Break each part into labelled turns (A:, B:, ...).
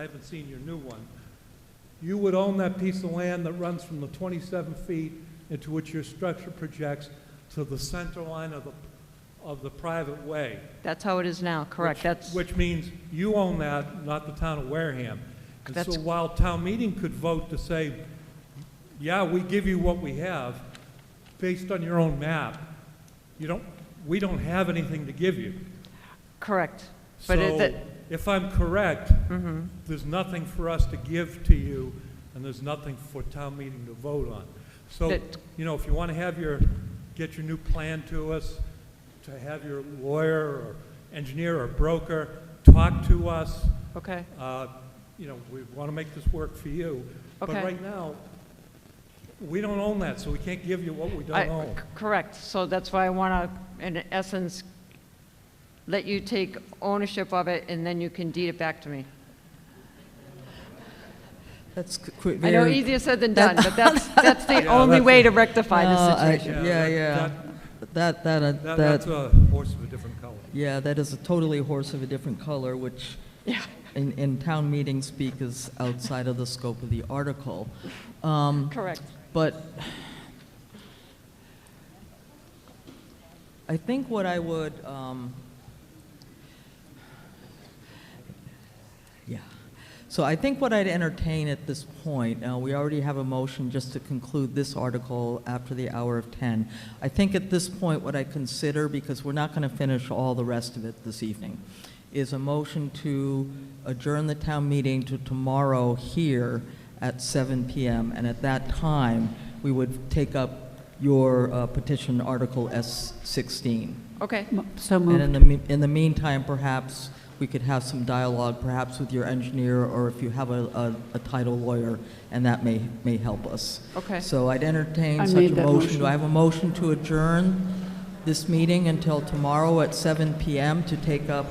A: I haven't seen your new one. You would own that piece of land that runs from the 27 feet into which your structure projects to the center line of the, of the private way.
B: That's how it is now, correct?
A: which-
B: That's,
A: Which means you own that, not the town of Wareham. And
B: That's-
A: so while town meeting could vote to say, yeah, we give you what we have, based on your own map, you don't, we don't have anything to give you.
B: correct. But it-
A: So
B: that- Mm-hmm.
A: if I'm correct, there's nothing for us to give to you, and there's nothing for town meeting to vote on. So,
B: That-
A: you know, if you want to have your, get your new plan to us, to have your lawyer or engineer or broker talk to us,
B: okay,
A: uh, you know, we want to make this work for you. But
B: Okay.
A: right now, we don't own that, so we can't give you what we
B: I-
A: don't own.
B: c- correct. So that's why I want to, in essence, let you take ownership of it, and then you can deed it back to me.
C: That's c- qu-
B: I know
C: very-
B: easier said than done, but that's, that's the
A: Yeah,
B: only
A: that's
B: way
A: a-
B: to rectify
C: No,
B: the
C: uh, I-
B: situation.
C: Yeah,
A: that-
C: yeah. That, that, uh,
A: That, that's
C: that,
A: a horse of a different color.
C: yeah, that is a totally horse of a different color, which
B: Yeah.
C: in, in town meeting speak is outside of the scope of the article. Um,
B: Correct.
C: But I think what I would, um, yeah. So I think what I'd entertain at this point, uh, we already have a motion just to conclude this article after the hour of 10. I think at this point, what I consider, because we're not going to finish all the rest of it this evening, is a motion to adjourn the town meeting to tomorrow here at 7 PM. And at that time, we would take up your uh, petition Article S-16.
B: Okay,
D: Mo- So
C: And in
D: moved.
C: the, me- in the meantime, perhaps we could have some dialogue, perhaps with your engineer, or if you have a, a, a title lawyer, and that may, may help us.
B: okay.
C: So I'd entertain
D: I
C: such a
D: made that
C: motion. Do
D: motion.
C: I have a motion to adjourn this meeting until tomorrow at 7 PM to take up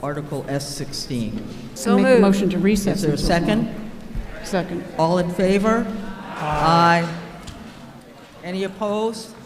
C: Article S-16?
B: So
D: Make a
B: moved.
D: motion to
C: Is
D: recess.
C: there a
D: until
C: second?
D: tomorrow. Second.
C: All in favor? Aye. Any opposed?